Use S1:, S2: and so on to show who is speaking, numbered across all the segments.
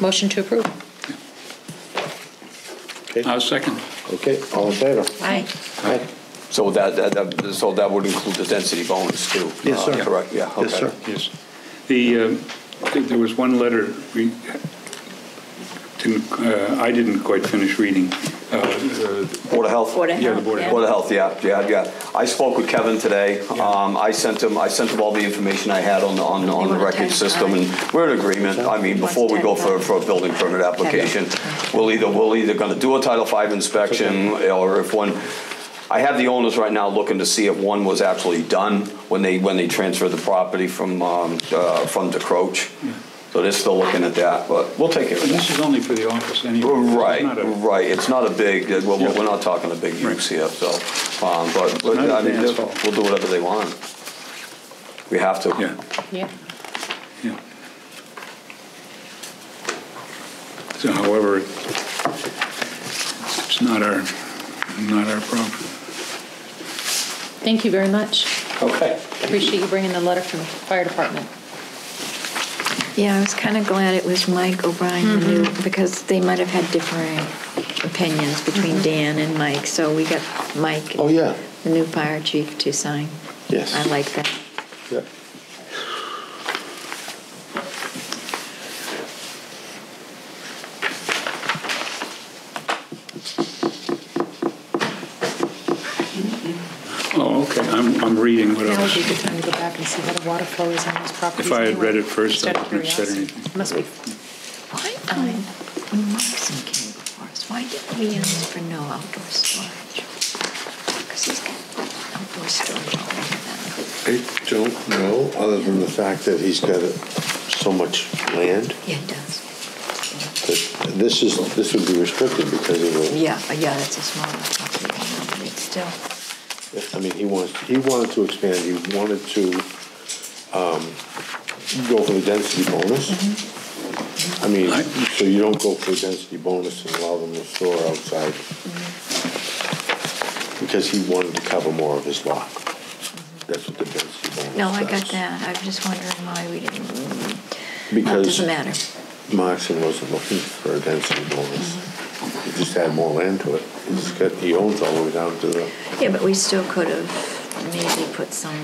S1: Motion to approve.
S2: I'll second.
S3: Okay, all in favor?
S1: Aye.
S3: Aye.
S4: So that, that- that, so that would include the density bonus too?
S3: Yes, sir.
S4: uh, Correct, yeah, okay.
S3: Yes, sir.
S2: Yes. The, um, I think there was one letter we didn't, uh, I didn't quite finish reading. Uh, uh,
S4: Board of Health?
S1: Board of
S2: Yeah, the
S1: Health,
S2: Board of
S1: yeah.
S4: Board of Health, yeah, yeah, yeah. I spoke with Kevin today. Um, I sent him, I sent him all the information I had on, the- on, on the
S1: want a
S4: record
S1: ten
S4: system, and we're in agreement. I mean,
S1: Wants
S4: before we
S1: ten
S4: go for,
S1: five.
S4: for a building permit application, we'll either, we'll either gonna do a Title V inspection, or if one, I have the owners right now looking to see if one was actually done when they, when they transferred the property from, um, uh, from DeCroach. So they're still looking at that, but we'll take care of
S2: And
S4: that.
S2: this is only for the office anyway. It's
S4: Right,
S2: not a-
S4: right, it's not a big, uh, well, we're
S2: Yeah.
S4: we're not talking a big use here, so, um, but, but,
S2: not
S4: I mean,
S2: advanced.
S4: we'll do whatever they want. We have to.
S2: Yeah,
S1: Yeah.
S2: yeah. So however, it's not our, not our problem.
S1: Thank you very much.
S4: Okay.
S1: Appreciate you bringing the letter from the fire department.
S5: Yeah, I was kind of glad it was Mike O'Brien who knew,
S3: Mm-hmm.
S5: because they might have had differing opinions between Dan and Mike, so we got Mike,
S3: Mm-hmm. Oh, yeah,
S5: the new fire chief, to sign.
S3: Yes.
S5: I like that.
S3: yeah.
S2: Oh, okay, I'm, I'm reading what
S1: Now would
S2: I
S1: be a
S2: was,
S1: good time to go back and see how the water flow is on those properties.
S2: If I had
S1: anyway,
S2: read it first, I
S1: just out of
S2: wouldn't have said
S1: curiosity.
S2: anything.
S1: Must be,
S5: Why, um, when Mikeson came before us, why didn't we ask for no outdoor storage? Because he's got outdoor storage all over that.
S3: I don't know, other than the fact that he's got so much land,
S5: Yeah, he does.
S3: that this is, this would be restricted because of the,
S5: Yeah, uh, yeah, that's a small property, I know, but it's still,
S3: I mean, he wants, he wanted to expand, he wanted to um, go for the density bonus. I mean,
S2: I-
S3: so you don't go for the density bonus and allow them to store outside. Because he wanted to cover more of his lot. That's what the density bonus
S5: no, I got
S3: does.
S5: that. I was just wondering why we didn't, well, it
S3: Because
S5: doesn't matter.
S3: Moxon wasn't looking for a density bonus. He just had more land to it. He's got, he owns all the way down to the,
S5: Yeah, but we still could have maybe put some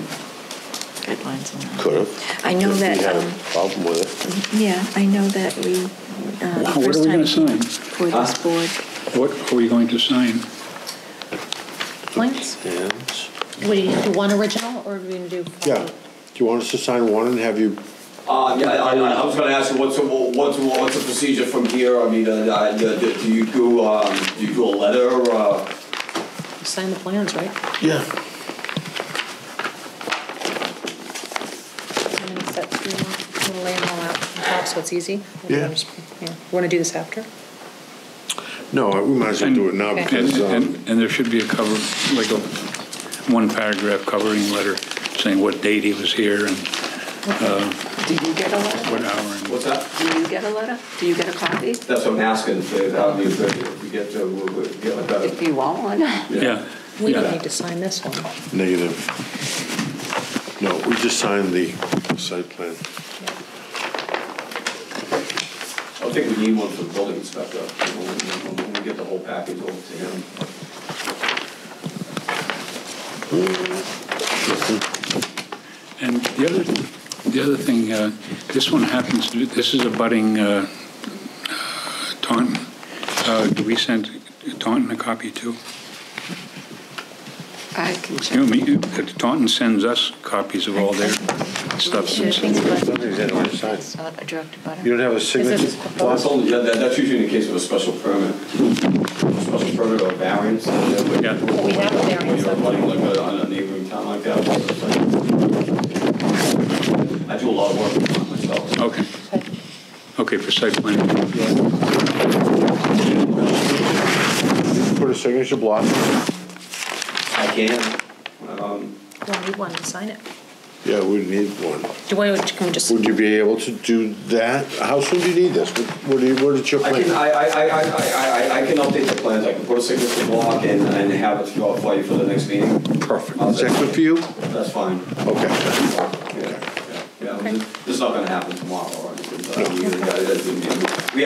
S5: guidelines in there.
S3: could have.
S5: I know that,
S3: He had
S5: um,
S3: a problem with it.
S5: Yeah, I know that
S2: Wow,
S5: we, uh, the
S2: what are
S5: first
S2: we
S5: time
S2: gonna sign?
S5: for this board,
S2: What are we going to sign?
S1: Lance,
S3: And
S1: what do you do, one original or are we gonna do?
S3: Yeah, do you want us to sign one and have you,
S4: Uh, yeah, I, I was gonna ask you, what's, the- what's, what's the procedure from here? I mean, uh, uh, do do you do, um, do you do a letter, uh?
S1: Sign the plans, right?
S3: yeah,
S1: I'm gonna set the little layer all out on top so it's easy.
S3: Yeah.
S1: Want to do this after?
S3: no, uh, we might as well do it now
S1: Okay.
S2: And,
S3: because, um,
S2: and- and there should be a cover, like a one paragraph covering letter saying what date he was here and uh,
S6: Do you get a letter?
S2: what hour and
S4: What's that?
S6: Do you get a letter? Do you get a copy?
S4: That's what I'm asking, uh, if, I mean, if we get to, we- we get a
S6: If
S4: better.
S6: you want one.
S2: Yeah.
S1: We don't
S2: yeah.
S1: need to sign this one.
S3: negative. No, we just signed the site plan.
S4: I think we need one for the building inspector, when we- when we get the whole package over to him.
S2: And the other, the other thing, uh, this one happens, to this is a budding uh, uh, Taunton. Uh, Do we send Taunton a copy too?
S6: I can check.
S2: You know, me- uh, Taunton sends us copies of all their stuff.
S5: should think
S3: Something's in our side.
S5: it's not a direct
S3: You
S5: butter.
S3: don't have a signature?
S1: Is it-
S4: Well, that's only, yeah, that- that's usually in the case of a special permit. Special permit or variance. and then when-
S2: Yeah.
S1: We have a variance,
S4: When you're
S1: so-
S4: running like a, on a neighboring town like that. it's like- I do a lot of work with mine myself. so-
S2: Okay. Okay, for site plan.
S3: Put a signature block?
S4: I can, um,
S1: We'll need one to sign it.
S3: Yeah, we need one.
S1: Do we, can we just?
S3: Would you be able to do that? How soon do you need this? What what do you, what is your
S4: I can,
S3: plan?
S4: I, I, I, I, I- I, I can update the plans, I can put a signature block and, and have it draw for you for the next meeting.
S3: Perfect. Is that good for you?
S4: That's fine.
S3: Okay.
S4: uh, Yeah, yeah, yeah, this is not gonna happen tomorrow, or anything, but I mean, we- we